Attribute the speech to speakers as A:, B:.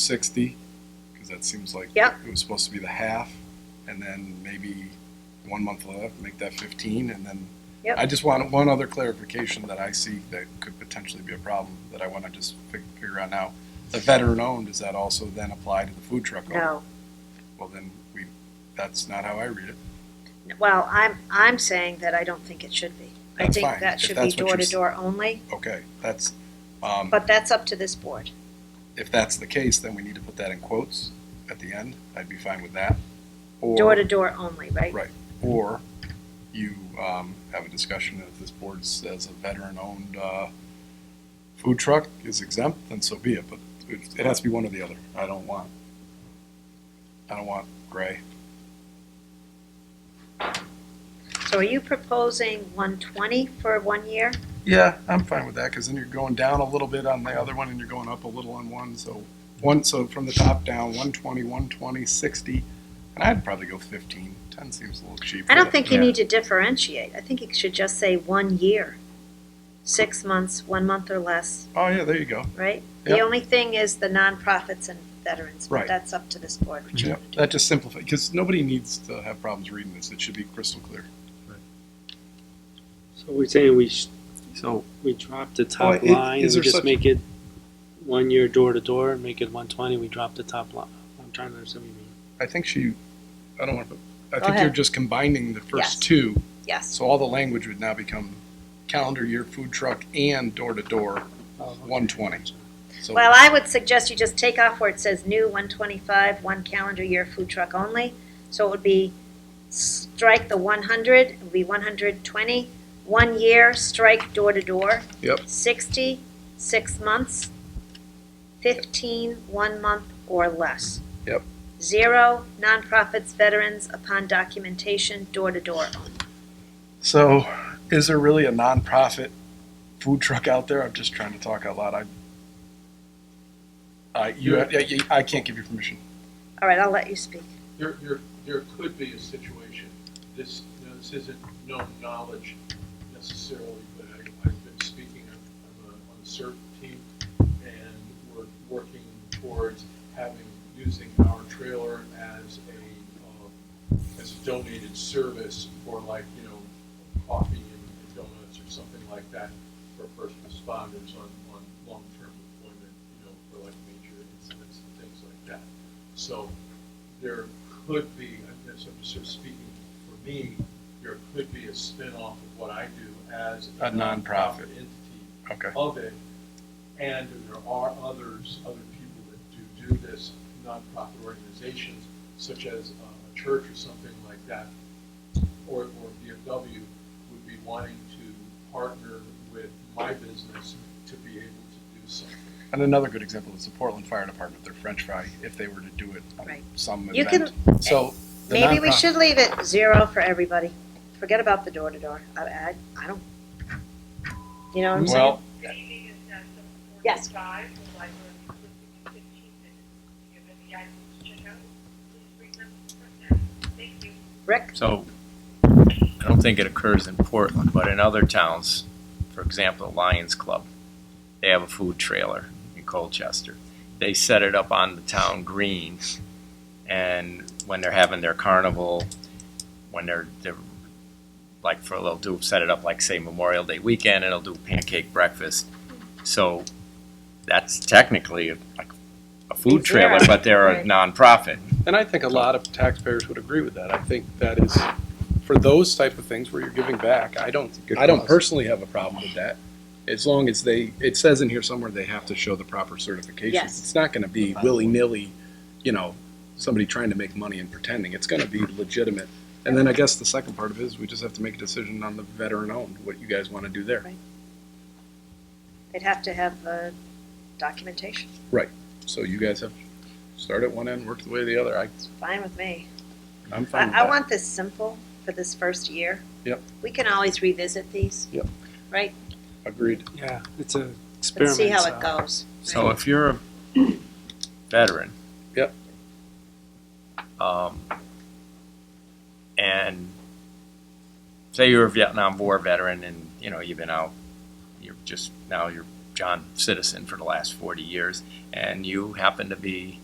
A: sixty, because that seems like
B: Yep.
A: it was supposed to be the half, and then maybe one month left, make that fifteen, and then
B: Yep.
A: I just want one other clarification that I see that could potentially be a problem that I want to just fi- figure out now. The veteran-owned, does that also then apply to the food truck? owner?
B: No,
A: Well, then we, that's not how I read it.
B: well, I'm, I'm saying that I don't think it should be. I
A: That's
B: think
A: fine,
B: that
A: if
B: should be
A: that's what you're
B: door to
A: s-
B: door only,
A: Okay, that's, um,
B: but that's up to this board.
A: if that's the case, then we need to put that in quotes at the end. I'd be fine with that. Or-
B: Door to door only, right?
A: Right, or you um, have a discussion if this board says a veteran-owned uh, food truck is exempt, then so be it, but it it has to be one or the other. I don't want, I don't want gray.
B: So are you proposing one twenty for one year?
A: Yeah, I'm fine with that, because then you're going down a little bit on the other one, and you're going up a little on one, so, one, so from the top down, 120, 120, 60, and I'd probably go 15. 10 seems a little cheap.
B: I don't think you
A: Yeah.
B: need to differentiate. I think you should just say one year. Six months, one month or less,
A: Oh, yeah, there you go.
B: right? The
A: Yep.
B: only thing is the nonprofits and veterans,
A: Right.
B: but that's up to this board, which
A: Yeah, that just simplifies, because nobody needs to have problems reading this, it should be crystal clear.
C: So we're saying we, sh-
D: So,
C: we drop the
A: Well,
C: top
A: it-
C: line
A: is
C: and
A: there
C: we just
A: such-
C: make it one year door to door, make it one twenty, we drop the top line. I'm trying to understand what you mean.
A: I think she, I don't want to, I think
B: Go
A: you're
B: ahead.
A: just combining the
B: Yes.
A: first two,
B: yes.
A: so all the language would now become calendar year food truck and door to door, one twenty. So,
B: Well, I would suggest you just take off where it says new one twenty-five, one calendar year food truck only. So it would be, strike the one hundred, it would be one hundred twenty, one year, strike door to door.
A: Yep.
B: Sixty, six months, fifteen, one month or less.
A: Yep.
B: Zero, nonprofits, veterans, upon documentation, door to door only.
A: so is there really a nonprofit food truck out there? I'm just trying to talk out loud, I, I, you, I, I can't give you permission.
B: All right, I'll let you speak.
E: There, there, there could be a situation, this, you know, this isn't known knowledge necessarily, but I, I've been speaking, I'm, I'm on a CERT team, and we're working towards having, using our trailer as a, um, as a donated service for like, you know, coffee and donuts or something like that for first responders on, on long-term deployment, you know, for like major incidents and things like that. So, there could be, I guess I'm just sort of speaking for me, there could be a spin-off of what I do as
A: A nonprofit.
E: entity
A: Okay,
E: of it, and there are others, other people that do do this, nonprofit organizations, such as uh, a church or something like that, or, or VFW, would be wanting to partner with my business to be able to do something.
A: and another good example is the Portland Fire Department, their french fry, if they were to do it on
B: Right.
A: some
B: You can-
A: event. So. the
B: Maybe we
A: nonprofit-
B: should leave it zero for everybody. Forget about the door to door. I, I, I don't. You know what I'm saying?
A: Well,
B: Yes.
F: Thank you.
B: Rick,
D: so, I don't think it occurs in Portland, but in other towns, for example, the Lions Club, they have a food trailer in Colchester. They set it up on the town green, and when they're having their carnival, when they're, they're, like, for, they'll do, set it up like, say, Memorial Day weekend, and they'll do pancake breakfast. So, that's technically like a food trailer,
B: Zero.
D: but they're a
B: Right.
D: nonprofit.
G: And I think a lot of taxpayers would agree with that. I think that is, for those type of things where you're giving back, I don't,
A: I don't personally have a problem with that, as long as they, it says in here somewhere they have to show the proper certifications.
B: Yes.
A: It's not gonna be willy-nilly, you know, somebody trying to make money and pretending, it's gonna be legitimate. And then I guess the second part of it is, we just have to make a decision on the veteran-owned, what you guys wanna do there.
B: Right. they'd have to have uh, documentation.
A: So you guys have, start at one end, work the way to the other, I,
B: It's fine with me.
A: I'm fine with
B: I, I
A: that.
B: want this simple for this first year.
A: Yep.
B: We can always revisit these.
A: Yep.
B: Right?
A: Agreed.
C: Yeah, it's a
B: Let's
C: experiment.
B: see how
C: so-
B: it goes.
D: So
B: Right.
D: if you're a veteran.
A: Yep.
D: Um, and say you're a Vietnam War veteran and, you know, you've been out, you're just, now you're John Citizen for the last 40 years, and you happen to be